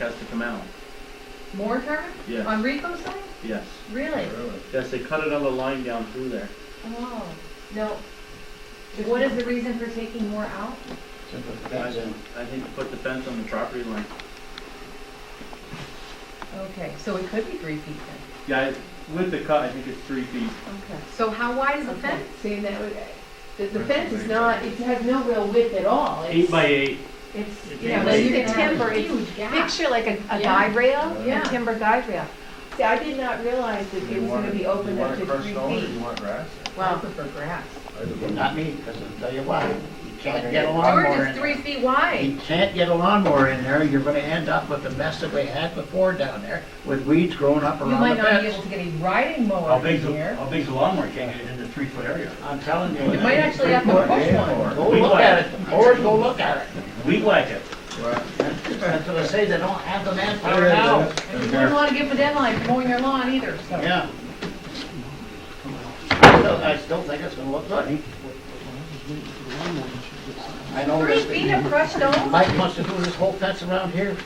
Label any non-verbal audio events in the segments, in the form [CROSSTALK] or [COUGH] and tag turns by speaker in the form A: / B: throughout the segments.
A: has to come out.
B: More turbine?
A: Yes.
B: On Rico's side?
A: Yes.
B: Really?
C: Really?
A: Yes, they cut another line down through there.
B: Oh, no. What is the reason for taking more out?
A: I think- I think to put the fence on the property line.
B: Okay, so it could be three feet then.
A: Yeah, it- with the cut, I think it's three feet.
B: Okay. So how wide is the
D: Okay,
B: fence?
D: see, and that would, the, the fence is not, it has no real width at all.
A: Eight by eight.
D: It's,
A: It's
D: you
A: eight
D: know,
A: by
D: you
A: eight.
D: can have
B: Timber,
D: a
B: it's
D: huge gap.
B: Picture like a, a
D: Yeah.
B: guide rail,
D: Yeah.
B: a timber guide rail.
D: See, I did not realize that it was gonna be open up to three
C: You
D: feet.
C: want grass?
D: Well, I prefer grass.
C: Either way.
E: Not me, because I'll tell you why. You can't get a
B: George
E: lawnmower
B: is
E: in
B: three
E: there.
B: feet
E: You
B: wide.
E: can't get a lawnmower in there, you're gonna end up with the mess that we had before down there, with weeds growing up
B: You
E: around the
B: might not be able
E: fence.
B: to get a riding
F: How
B: mower in
F: big's, the-
B: here.
F: how big's the lawnmower can't get into a three foot area?
E: I'm telling you.
B: You might actually have to push one.
E: Go look at it, or go look at it.
F: We whack it.
C: Right.
E: That's what I say, they don't have the manpower
C: There
E: now.
C: it
B: You wouldn't want to give them a deadline for mowing your lawn either, so.
E: Yeah. I still, I still think it's gonna look good. I know
B: Three
E: that
B: feet
E: the-
B: of crushed stone?
E: Mike must have do this whole fence around here.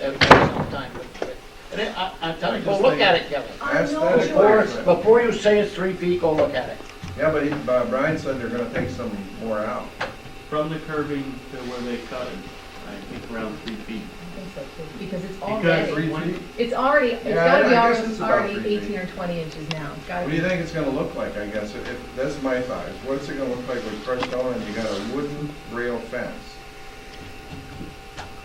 E: That was sometime, but- but- and I, I'm telling you, go look at it, Kevin.
B: I know,
C: Aesthetic.
E: Before,
B: George.
E: before you say it's three feet, go look at it.
C: Yeah, but he- uh, Brian said they're gonna take some more out.
A: From the curving to where they cut it, I think around three feet.
B: I think so, too, Because it's
C: Because
B: already,
C: three feet,
B: it's already, it's
C: Yeah,
B: gotta be
C: I guess
B: already,
C: it's about
B: already
C: three feet.
B: eighteen or twenty inches now. It's gotta
C: what do
B: be.
C: you think it's gonna look like, I guess, if, if- that's my size, what's it gonna look like with crushed stone and you got a wooden rail fence?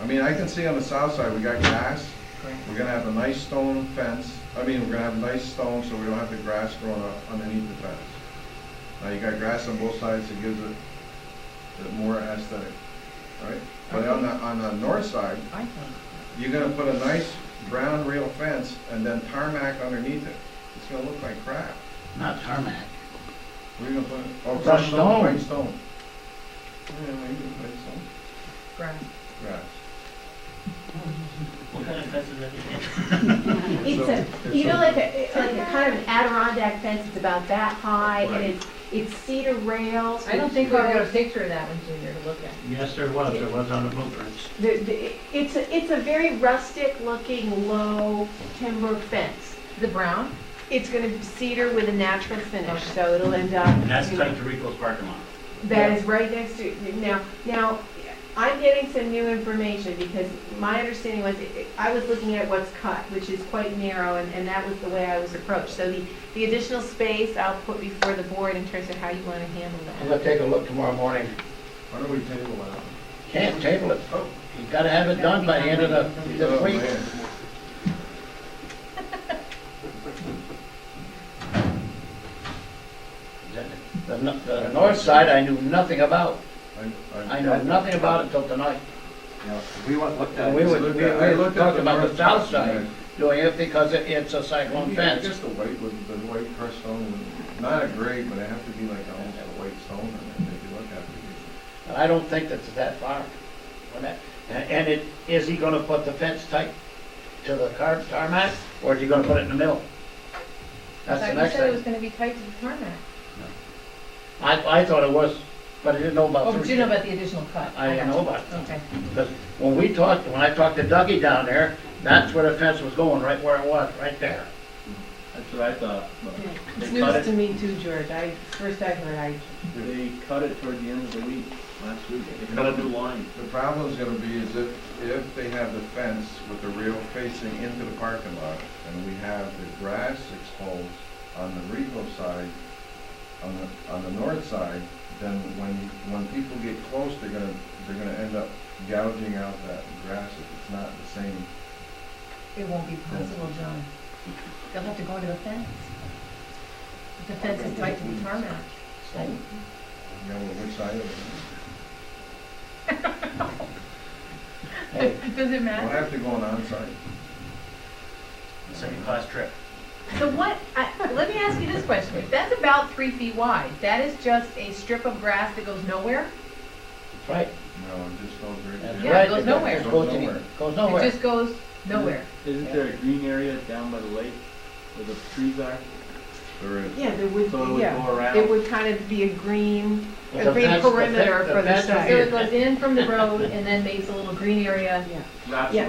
C: I mean, I can see on the south side, we got grass, we're gonna have a nice stone fence, I mean, we're gonna have nice stone, so we don't have the grass growing up underneath the fence. Now, you got grass on both sides, it gives it, it more aesthetic, right? But on the, on the north side,
B: I think.
C: You're gonna put a nice brown rail fence and then tarmac underneath it. It's gonna look like crap.
E: Not tarmac.
C: We're gonna put, oh,
E: Crushed
C: crushed stone,
E: stone.
C: white stone. Yeah, we can put some
B: Grass.
C: grass.
E: What kind of fence is that?
D: It's
C: So-
D: a, you know, like a, like a kind of an Adirondack fence, it's about that high,
C: Right.
D: and it's, it's cedar rails.
B: I don't think we got a picture of that one, Junior, to look at.
F: Yes, there was, there was on the blueprints.
D: The, the, it's a, it's a very rustic looking, low timber fence.
B: The brown?
D: It's gonna be cedar with a natural finish, so it'll end up.
F: And that's tight to Rico's parking lot.
D: That is right next to, now, now, I'm getting some new information because my understanding was, I was looking at what's cut, which is quite narrow, and, and that was the way I was approached. So the, the additional space I'll put before the board in terms of how you wanna handle
E: I'm
D: that.
E: gonna take a look tomorrow morning.
C: Why don't we table that?
E: Can't table it.
C: Oh.
E: You gotta have it done by the end of the, this
C: Oh,
E: week.
C: man.
E: The, n- the north side, I knew nothing about.
C: I- I-
E: I know nothing about it till tonight.
C: Yeah.
F: We want, looked
E: And we
C: I
E: were, we
C: looked at- I
E: were
C: looked at
E: talking about the
C: north-
E: south side
C: Yeah.
E: doing it because it, it's a cyclone
C: Maybe- I
E: fence.
C: guess the white, would- the white crushed stone, would- not a gray, but it have to be like almost a white stone and then maybe look at it.
E: And I don't think that's that far. from that. And and it, is he gonna put the fence tight to the car, tarmac, or is he gonna put it in the middle? That's the
B: I thought you
E: next
B: said it was
E: thing.
B: gonna be tight to the tarmac.
E: I, I thought it was, but I didn't know about.
B: Oh, but
E: three.
B: you know about the additional cut?
E: I didn't know about it.
B: Okay.
E: Because when we talked, when I talked to Dougie down there, that's where the fence was going, right where it was, right there.
A: That's what I thought. but
D: It's
A: They cut
D: news to
A: it,
D: me too, George, I, first I heard, I,
A: they cut it toward the end of the week, last week. They cut a new line.
C: The problem's gonna be is if, if they have the fence with the rail facing into the parking lot, and we have the grass exposed on the Rico side, on the, on the north side, then when, when people get close, they're gonna, they're gonna end up gouging out that grass if it's not the same.
B: It won't be possible, John. They'll have to go to the fence. The fence is tight to the tarmac.
C: stone. You know, which side of it.
E: Hey,
B: [LAUGHS] Does it
C: We'll have to go on onside.
F: Second class trip.
B: So what, I- let me ask you this question. If that's about three feet wide, that is just a strip of grass that goes nowhere?
E: that's right,
C: No, it just goes right
E: that's
C: there.
E: right.
B: Yeah, it goes nowhere.
E: Goes nowhere. Goes
B: It
E: nowhere.
B: just goes nowhere?
A: Isn't there a green area down by the lake where the trees are?
C: There is.
D: yeah, there would,
A: So it would
D: yeah,
A: go around.
D: it would kind of be a green,
E: But
D: a
E: the
D: green
E: fence- the fe-
D: perimeter
E: the
D: for the
E: fence is
D: side.
B: So it goes in from the road and then makes a little green area
D: yeah.
A: Wraps
D: yeah.